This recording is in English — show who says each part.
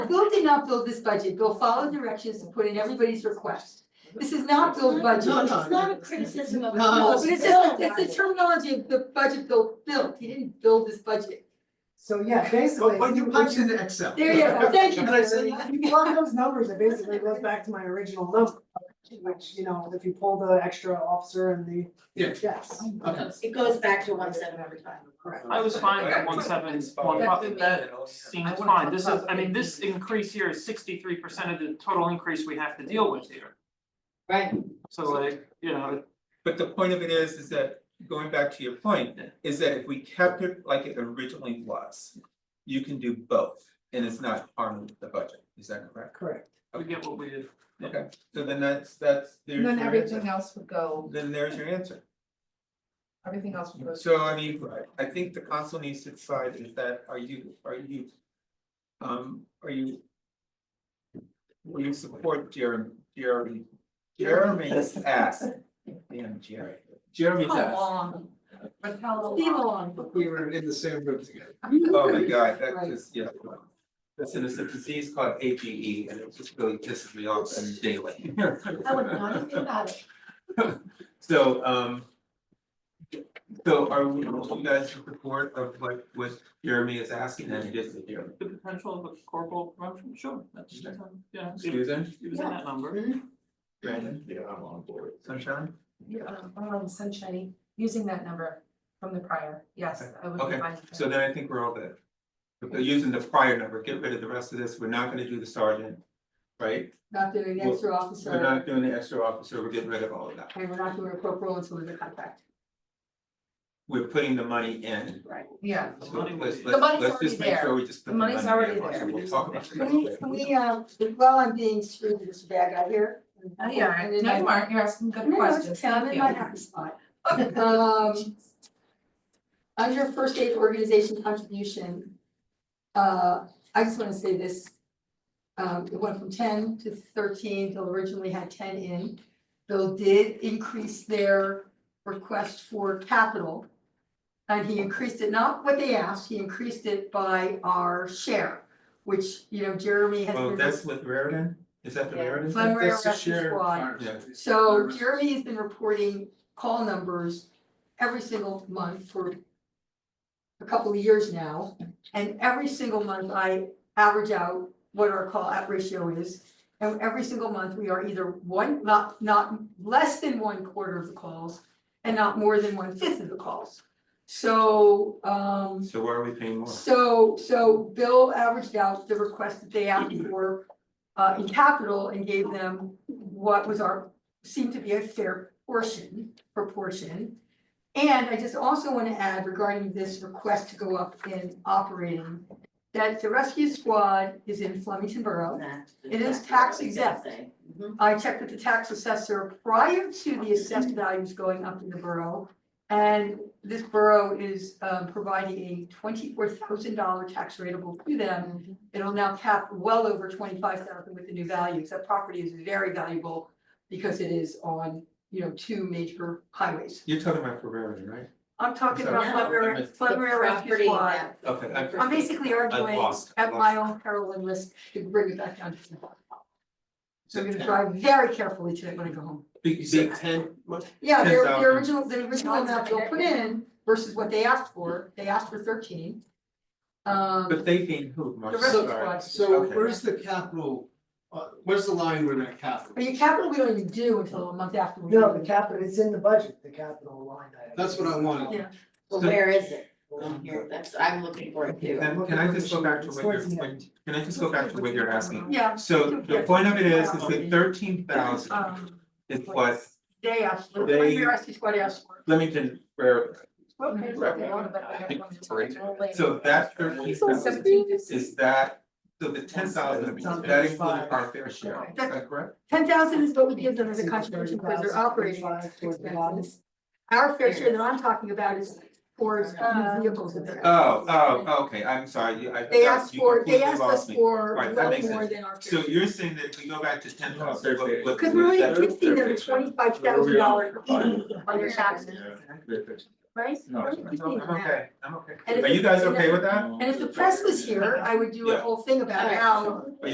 Speaker 1: Bill did not build this budget, Bill followed directions to put in everybody's request. This is not Bill's budget.
Speaker 2: No, no.
Speaker 3: It's not a criticism of.
Speaker 2: No,
Speaker 1: No,
Speaker 2: it's
Speaker 1: but it's just, it's the terminology of the budget Bill built, he didn't build this budget.
Speaker 4: So yeah, basically.
Speaker 2: But when you punch into Excel.
Speaker 1: There you go, thank you.
Speaker 2: Can I say
Speaker 1: Bill.
Speaker 4: If you plug those numbers, it basically goes back to my original number, which, you know, if you pull the extra officer and the.
Speaker 2: Yeah.
Speaker 4: Yes.
Speaker 2: Okay.
Speaker 3: It goes back to one seven every time.
Speaker 4: Correct.
Speaker 5: I was fine with one seven, one five, that seems fine, this is, I mean, this increase here is sixty-three percent of the total increase we have to deal with here.
Speaker 3: Right.
Speaker 5: So like, you know,
Speaker 6: But the point of it is, is that, going back to your point, is that if we kept it like it originally was, you can do both, and it's not harming the budget, is that correct?
Speaker 4: Correct.
Speaker 5: we get what we did.
Speaker 6: Okay, so then that's, that's, there's
Speaker 7: And
Speaker 6: your
Speaker 7: then everything
Speaker 6: answer.
Speaker 7: else would go,
Speaker 6: Then there's your answer.
Speaker 7: everything else would go.
Speaker 6: So I mean, I think the council needs to decide is that, are you, are you, um, are you? Will you support Jeremy, Jeremy, Jeremy's ask, damn Jerry, Jeremy's
Speaker 1: How
Speaker 6: ask.
Speaker 1: long?
Speaker 7: But how
Speaker 1: Steve long.
Speaker 2: We were in the same room together.
Speaker 6: Oh my god, that
Speaker 1: Right.
Speaker 6: just, yeah. Listen, it's a disease called A P E and it just really pisses me off daily.
Speaker 3: I would not have been about it.
Speaker 6: So um. So are we, are you guys in support of what what Jeremy is asking and just Jeremy?
Speaker 5: The potential of a corporal promotion, sure, that's, that's, yeah, it was-
Speaker 6: Susan,
Speaker 5: it was in that number.
Speaker 6: Brandon,
Speaker 2: Yeah, I'm on board.
Speaker 6: Sunshine?
Speaker 7: Um, sunshiny, using that number from the prior, yes, I would
Speaker 6: Okay,
Speaker 7: be fine.
Speaker 6: So then I think we're all good. If they're using the prior number, get rid of the rest of this, we're not gonna do the sergeant, right?
Speaker 1: Not doing an extra officer,
Speaker 6: We're
Speaker 1: and
Speaker 6: not doing the extra officer, we're getting rid of all of that.
Speaker 1: we're not doing a corporal until there's a contract.
Speaker 6: We're putting the money in.
Speaker 7: Yeah,
Speaker 5: The
Speaker 6: So
Speaker 5: money
Speaker 6: let's,
Speaker 5: was-
Speaker 6: let's,
Speaker 7: money's
Speaker 6: let's just
Speaker 7: already
Speaker 6: make sure
Speaker 7: there.
Speaker 6: we just
Speaker 7: The
Speaker 6: put the
Speaker 7: money's
Speaker 6: money
Speaker 7: already
Speaker 6: in,
Speaker 7: there.
Speaker 6: and we'll talk about
Speaker 1: Can we,
Speaker 6: that
Speaker 1: can
Speaker 6: later.
Speaker 1: we, um, while I'm being screwed with this bag out here.
Speaker 7: Oh, yeah,
Speaker 1: and then
Speaker 7: no,
Speaker 1: I-
Speaker 7: you aren't, you're asking good
Speaker 1: No, no, it's
Speaker 7: questions,
Speaker 1: okay, I'm
Speaker 7: thank
Speaker 1: in my
Speaker 7: you.
Speaker 1: happy spot. Um. Under first aid organization contribution. Uh, I just wanna say this. Um, it went from ten to thirteen, Bill originally had ten in. Bill did increase their request for capital. And he increased it, not what they asked, he increased it by our share, which, you know, Jeremy has been.
Speaker 6: Well, that's with Raritan, is that the
Speaker 3: Yeah.
Speaker 6: Raritan?
Speaker 1: Glen Rare
Speaker 2: That's the
Speaker 1: Rescue
Speaker 2: shared
Speaker 1: Squad.
Speaker 2: fire
Speaker 6: Yeah.
Speaker 2: service.
Speaker 1: So Jeremy has been reporting call numbers every single month for a couple of years now. And every single month I average out what our call out ratio is. And every single month, we are either one, not, not less than one quarter of the calls and not more than one fifth of the calls. So, um,
Speaker 6: So why are we paying more?
Speaker 1: so, so Bill averaged out the request that they asked for uh, in capital and gave them what was our, seemed to be a fair portion, proportion. And I just also want to add regarding this request to go up in operating, that the rescue squad is in Flemington Borough. It is tax exempt. Mm-hmm. I checked with the tax assessor prior to the assessed values going up in the borough. And this borough is um, providing a twenty-four thousand dollar tax rateable to
Speaker 3: Um,
Speaker 1: them. It'll now cap well over twenty-five thousand with the new values. That property is very valuable because it is on, you know, two major highways.
Speaker 6: You're talking about for Raritan, right?
Speaker 1: I'm talking about
Speaker 3: Yeah.
Speaker 1: Flum River, Flum River Rescue
Speaker 3: Property
Speaker 1: Squad.
Speaker 3: that-
Speaker 6: Okay, I-
Speaker 1: I'm basically arguing
Speaker 6: lost- I
Speaker 1: at my own peril and risk to bring it back down to the bottom. So I'm gonna
Speaker 6: Okay.
Speaker 1: drive very carefully tonight when I go home.
Speaker 6: big, big ten, what?
Speaker 1: Yeah, their, their
Speaker 6: 10,000.
Speaker 1: original, the original amount they'll put in versus what they asked for, they asked for thirteen.
Speaker 6: But
Speaker 1: Um,
Speaker 6: they being who, Mark?
Speaker 1: The rest of
Speaker 6: Sorry.
Speaker 1: us.
Speaker 2: So
Speaker 6: Okay.
Speaker 2: where's the capital, uh, where's the line where that capital?
Speaker 1: but your capital, we don't even do until a month after. we
Speaker 4: No,
Speaker 1: do.
Speaker 4: the capital, it's in the budget, the capital line. item.
Speaker 2: That's what I wanted.
Speaker 1: Yeah.
Speaker 3: Well, where is it? Well, here, that's, I'm looking for it too.
Speaker 6: Then can I just go back to
Speaker 4: It's
Speaker 6: what you're,
Speaker 4: towards the end.
Speaker 6: can I just go back to what you're asking?
Speaker 1: Yeah.
Speaker 6: So the point of it is, is that thirteen thousand
Speaker 1: um,
Speaker 6: is what
Speaker 1: They asked, for-
Speaker 6: They-
Speaker 1: your rescue squad asked for.
Speaker 6: Flemington Raritan,
Speaker 1: Okay.
Speaker 6: so that thirteen thousand is that, so the ten thousand, that includes our fair share, is that correct?
Speaker 1: Ten thousand is what we give them as a contribution because they're operating expenses. Our fair share that I'm talking about is towards uh, vehicles that they're.
Speaker 6: Oh, oh, okay, I'm sorry, you- I.
Speaker 1: They
Speaker 6: forgot,
Speaker 1: asked
Speaker 6: you
Speaker 1: for, they
Speaker 6: completely
Speaker 1: asked
Speaker 6: lost
Speaker 1: us
Speaker 6: me.
Speaker 1: for
Speaker 6: Right, that
Speaker 1: well
Speaker 6: makes
Speaker 1: more
Speaker 6: sense.
Speaker 1: than our fair
Speaker 6: So
Speaker 1: share.
Speaker 6: you're saying that if we go back to ten thousand, what, what?
Speaker 1: Cause we're
Speaker 6: what-
Speaker 1: only gifting them a twenty-five thousand dollar on their taxes.
Speaker 7: right?
Speaker 6: No, I'm I'm okay, I'm okay.
Speaker 1: And if
Speaker 6: Are you
Speaker 1: the-
Speaker 6: guys okay with that?
Speaker 1: And if the press was here, I would do a
Speaker 6: Yeah.
Speaker 1: whole thing about
Speaker 3: Alright.
Speaker 1: how